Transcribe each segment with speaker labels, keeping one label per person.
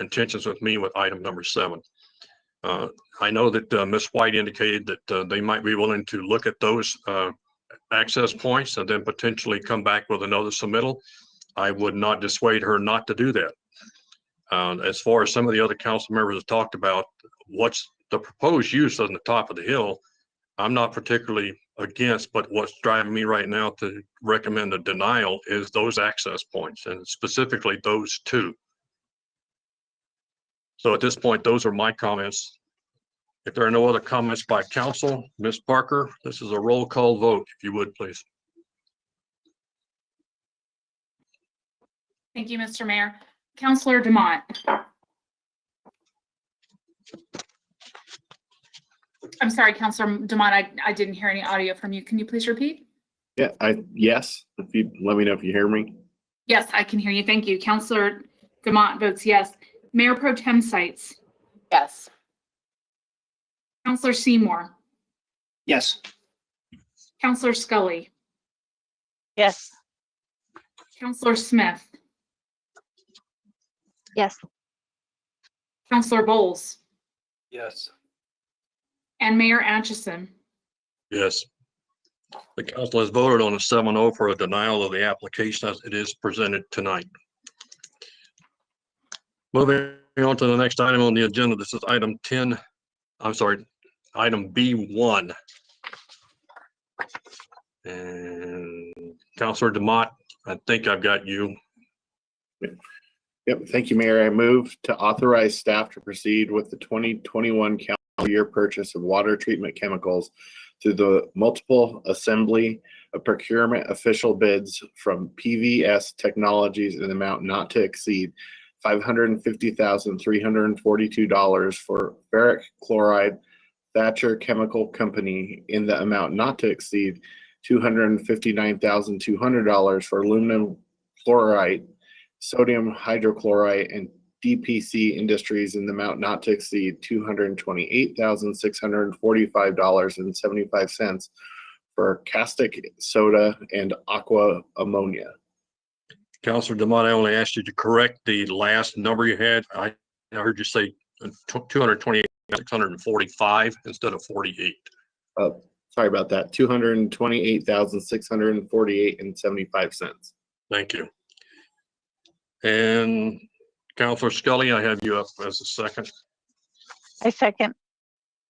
Speaker 1: intentions with me with item number seven. Uh, I know that uh, Ms. White indicated that uh, they might be willing to look at those uh, access points and then potentially come back with another submittal. I would not dissuade her not to do that. Uh, As far as some of the other council members have talked about, what's the proposed use on the top of the hill, I'm not particularly against, but what's driving me right now to recommend a denial is those access points and specifically those two. So at this point, those are my comments. If there are no other comments by council, Ms. Parker, this is a roll call vote, if you would, please.
Speaker 2: Thank you, Mr. Mayor. Counselor Demott. I'm sorry, Counselor Demott, I, I didn't hear any audio from you. Can you please repeat?
Speaker 3: Yeah, I, yes, if you, let me know if you hear me.
Speaker 2: Yes, I can hear you. Thank you. Counselor Demott votes yes. Mayor Pro Tem Sights.
Speaker 4: Yes.
Speaker 2: Counselor Seymour.
Speaker 5: Yes.
Speaker 2: Counselor Scully.
Speaker 4: Yes.
Speaker 2: Counselor Smith.
Speaker 6: Yes.
Speaker 2: Counselor Bowles.
Speaker 5: Yes.
Speaker 2: And Mayor Atchison.
Speaker 1: Yes. The council has voted on a 7-0 for a denial of the application as it is presented tonight. Moving on to the next item on the agenda, this is item ten, I'm sorry, item B one. And Counselor Demott, I think I've got you.
Speaker 3: Yep, thank you, Mayor. I move to authorize staff to proceed with the twenty twenty-one calendar year purchase of water treatment chemicals through the multiple assembly of procurement official bids from PVS Technologies in an amount not to exceed five hundred and fifty thousand, three hundred and forty-two dollars for ferric chloride Thatcher Chemical Company in the amount not to exceed two hundred and fifty-nine thousand, two hundred dollars for aluminum chloride sodium hydrochloride and DPC Industries in the amount not to exceed two hundred and twenty-eight thousand six hundred and forty-five dollars and seventy-five cents for caustic soda and aqua ammonia.
Speaker 1: Counselor Demott, I only asked you to correct the last number you had. I I heard you say two hundred twenty-eight, six hundred and forty-five instead of forty-eight.
Speaker 3: Sorry about that. Two hundred and twenty-eight thousand six hundred and forty-eight and seventy-five cents.
Speaker 1: Thank you. And Counselor Scully, I have you up as a second.
Speaker 4: I second.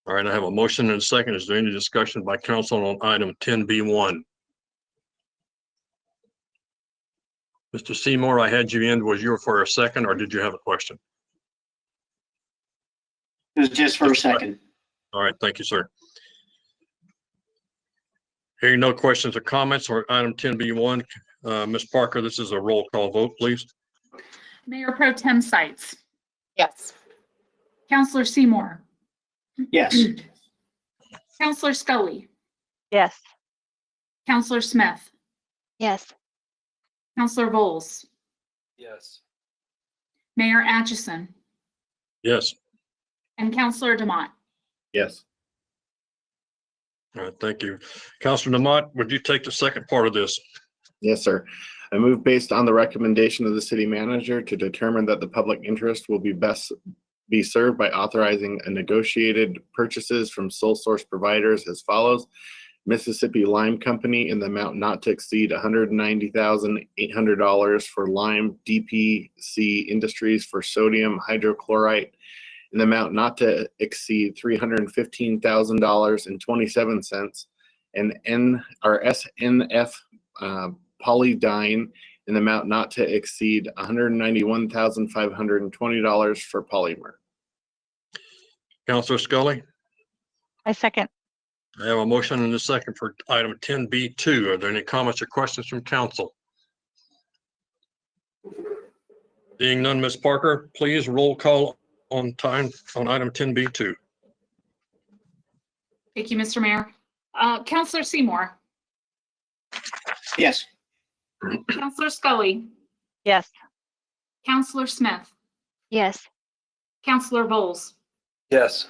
Speaker 1: All right, I have a motion and a second. Is there any discussion by council on item ten B one? Mr. Seymour, I had you in. Was you for a second or did you have a question?
Speaker 5: It was just for a second.
Speaker 1: All right, thank you, sir. Hearing no questions or comments on item ten B one, uh, Ms. Parker, this is a roll call vote, please.
Speaker 2: Mayor Pro Tem Sights.
Speaker 4: Yes.
Speaker 2: Counselor Seymour.
Speaker 5: Yes.
Speaker 2: Counselor Scully.
Speaker 4: Yes.
Speaker 2: Counselor Smith.
Speaker 6: Yes.
Speaker 2: Counselor Bowles.
Speaker 5: Yes.
Speaker 2: Mayor Atchison.
Speaker 1: Yes.
Speaker 2: And Counselor Demott.
Speaker 3: Yes.
Speaker 1: All right, thank you. Counselor Demott, would you take the second part of this?
Speaker 3: Yes, sir. I move based on the recommendation of the city manager to determine that the public interest will be best be served by authorizing a negotiated purchases from sole source providers as follows. Mississippi Lime Company in the amount not to exceed hundred and ninety thousand eight hundred dollars for lime DPC Industries for sodium hydrochlorite in the amount not to exceed three hundred and fifteen thousand dollars and twenty-seven cents. And N, or SNF uh, Polydyne in the amount not to exceed $191,520 for polymer.
Speaker 1: Counselor Scully,
Speaker 4: I second.
Speaker 1: I have a motion and a second for item ten B two. Are there any comments or questions from council? Being none, Ms. Parker, please roll call on time on item ten B two.
Speaker 2: Thank you, Mr. Mayor. Uh, Counselor Seymour.
Speaker 5: Yes.
Speaker 2: Counselor Scully.
Speaker 4: Yes.
Speaker 2: Counselor Smith.
Speaker 6: Yes.
Speaker 2: Counselor Bowles.
Speaker 5: Yes.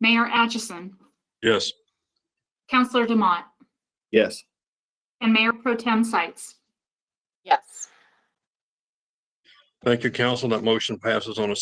Speaker 2: Mayor Atchison.
Speaker 1: Yes,
Speaker 2: Counselor Demott.
Speaker 3: Yes.
Speaker 2: And Mayor Pro Tem Sights.
Speaker 4: Yes.
Speaker 1: thank you, council. That motion passes on a